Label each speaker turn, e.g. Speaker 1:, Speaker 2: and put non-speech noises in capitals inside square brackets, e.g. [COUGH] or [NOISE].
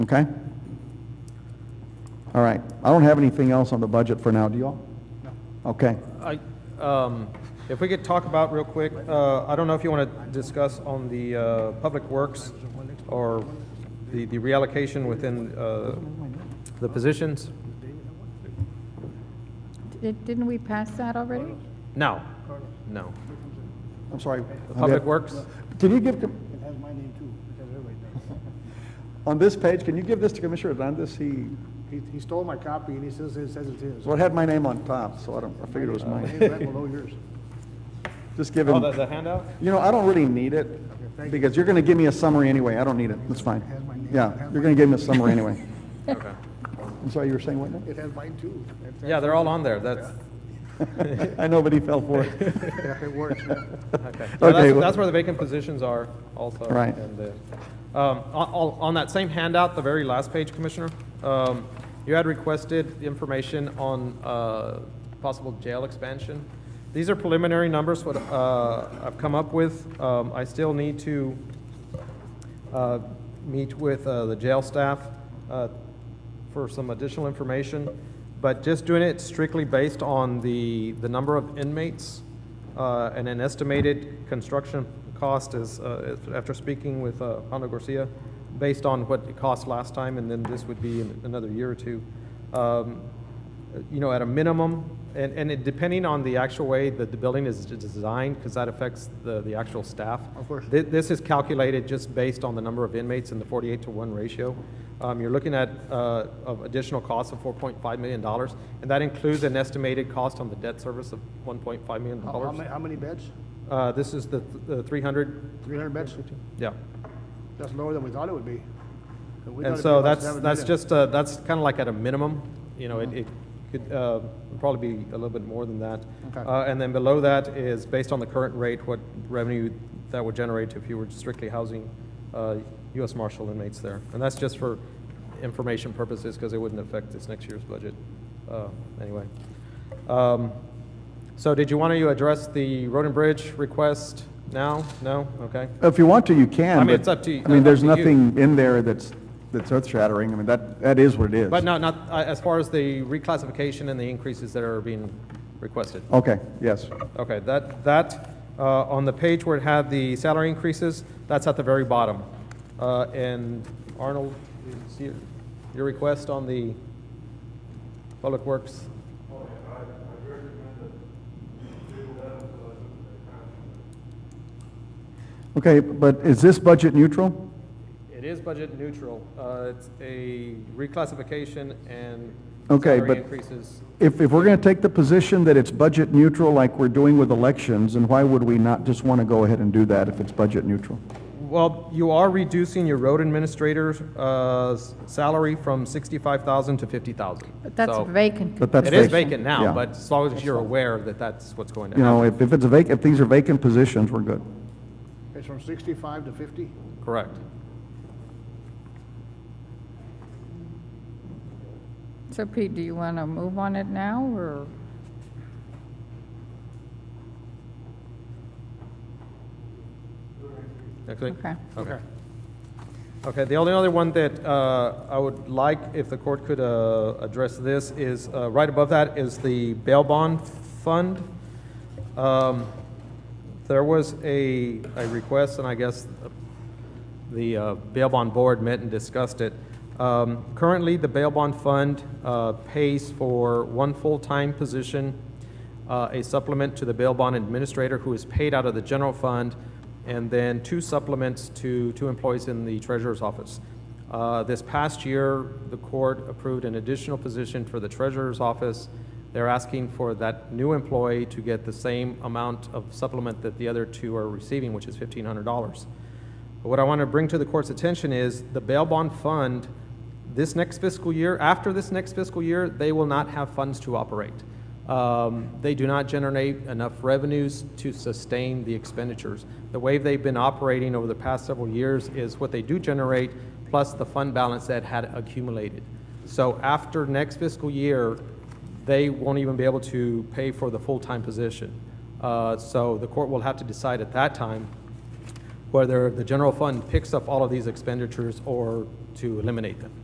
Speaker 1: Okay? All right. I don't have anything else on the budget for now, do y'all? No. Okay.
Speaker 2: I, um, if we could talk about real quick, uh, I don't know if you want to discuss on the, uh, Public Works or the, the reallocation within, uh, the positions?
Speaker 3: Di- Didn't we pass that already?
Speaker 2: No, no.
Speaker 1: I'm sorry.
Speaker 2: The Public Works?
Speaker 1: Can you give,
Speaker 4: It has my name too, it has everybody does.
Speaker 1: on this page, can you give this to Commissioner Hernandez? He,
Speaker 4: He, he stole my copy and he says, it says it's his.
Speaker 1: well, it had my name on top, so I don't, I figured it was
Speaker 4: Mine's
Speaker 1: mine.
Speaker 4: right below yours.
Speaker 1: Just give
Speaker 2: Oh, the,
Speaker 1: him,
Speaker 2: the handout?
Speaker 1: you know, I don't really need it,
Speaker 4: thank you.
Speaker 1: because you're gonna give me a summary anyway. I don't need it. That's fine.
Speaker 4: Has my name.
Speaker 1: Yeah,
Speaker 4: Has
Speaker 1: you're
Speaker 4: my-
Speaker 1: gonna give me a summary anyway.
Speaker 2: Okay.
Speaker 1: I'm sorry, you were saying what now?
Speaker 4: [LAUGHS]
Speaker 1: [LAUGHS]
Speaker 4: It has mine too. It-
Speaker 2: Yeah, they're all on there, that's,
Speaker 1: I know, but he fell for it.
Speaker 4: Yeah, It works.
Speaker 2: Okay, Yeah,
Speaker 1: [LAUGHS] Okay,
Speaker 2: that's,
Speaker 1: well-
Speaker 2: that's where the vacant positions are also.
Speaker 1: Right.
Speaker 2: and the- Um, on, on- on that same handout, the very last page, Commissioner, um, you had requested information on, uh, possible jail expansion. These are preliminary numbers, what, uh, I've come up with. Um, I still need to, uh, meet with, uh, the jail staff, uh, for some additional information. But just doing it strictly based on the, the number of inmates, uh, and an estimated construction cost is, uh, is- after speaking with, uh, Hondo Garcia, based on what it cost last time, and then this would be in another year or two. Um, you know, at a minimum, and, and it, depending on the actual way that the building is d- designed, because that affects the, the actual staff.
Speaker 4: Of course.
Speaker 2: Thi- This, is calculated just based on the number of inmates in the forty-eight to one ratio. Um, you're looking at, uh, of additional costs of four point five million dollars, and that includes an estimated cost on the debt service of one point five million
Speaker 4: How, how ma-
Speaker 2: dollars.
Speaker 4: how many beds?
Speaker 2: Uh, this is the, th- the three hundred,
Speaker 4: Three hundred beds?
Speaker 2: yeah.
Speaker 4: That's lower than we thought it would be. We thought
Speaker 2: And
Speaker 4: it'd
Speaker 2: so
Speaker 4: be about
Speaker 2: that's,
Speaker 4: 7
Speaker 2: that's
Speaker 4: million.
Speaker 2: just, uh, that's kind of like at a minimum, you know,
Speaker 4: Uh-huh.
Speaker 2: it, it could, uh, probably be a little bit more than that.
Speaker 4: Okay.
Speaker 2: Uh, and then below that is based on the current rate, what revenue that would generate if you were strictly housing, uh, US Marshal inmates there. And that's just for information purposes, because it wouldn't affect this next year's budget, uh, anyway. Um, so did you want to address the road and bridge request now? No? Okay.
Speaker 1: If you want to, you can.
Speaker 2: I mean,
Speaker 1: but-
Speaker 2: it's up to you-
Speaker 1: I mean,
Speaker 2: up
Speaker 1: there's
Speaker 2: to you.
Speaker 1: nothing in there that's, that's earth-shattering. I mean, that, that is what it is.
Speaker 2: But not, not, uh, as far as the reclassification and the increases that are being requested.
Speaker 1: Okay, yes.
Speaker 2: Okay, that, that, uh, on the page where it had the salary increases, that's at the very bottom. Uh, and Arnold, you see your- your request on the Public Works?
Speaker 1: Okay, but is this budget neutral?
Speaker 2: It is budget neutral. Uh, it's a reclassification and
Speaker 1: Okay,
Speaker 2: salary
Speaker 1: but-
Speaker 2: increases.
Speaker 1: If, if we're going to take the position that it's budget neutral like we're doing with elections, then why would we not just want to go ahead and do that if it's budget neutral?
Speaker 2: Well, you are reducing your road administrator's, uh, s- salary from sixty-five thousand to fifty thousand.
Speaker 3: But that's vacant.
Speaker 1: But that's
Speaker 2: It is
Speaker 1: vacant.
Speaker 2: vacant
Speaker 1: Yeah.
Speaker 2: now, but as long as you're aware that that's what's going to
Speaker 1: You know,
Speaker 2: happen.
Speaker 1: if, if it's vacant, if these are vacant positions, we're good.
Speaker 4: It's from sixty-five to fifty?
Speaker 2: Correct.
Speaker 3: So Pete, do you want to move on it now, or?
Speaker 2: Okay.
Speaker 3: Okay.
Speaker 2: Okay. Okay, the only other one that uh, I would like, if the court could uh, address this, is, uh, right above that is the bail bond fund. Um, There was a, a request, and I guess the uh, bail bond board met and discussed it. Um, Currently, the bail bond fund uh, pays for one full-time position, uh, a supplement to the bail bond administrator who is paid out of the general fund, and then two supplements to two employees in the treasurer's office. Uh, This past year, the court approved an additional position for the treasurer's office. They're asking for that new employee to get the same amount of supplement that the other two are receiving, which is fifteen hundred dollars. But What I want to bring to the court's attention is the bail bond fund, this next fiscal year, after this next fiscal year, they will not have funds to operate. Um, They do not generate enough revenues to sustain the expenditures. The way they've been operating over the past several years is what they do generate plus the fund balance that had accumulated. So after next fiscal year, they won't even be able to pay for the full-time position. Uh, So the court will have to decide at that time whether the general fund picks up all of these expenditures or to eliminate them.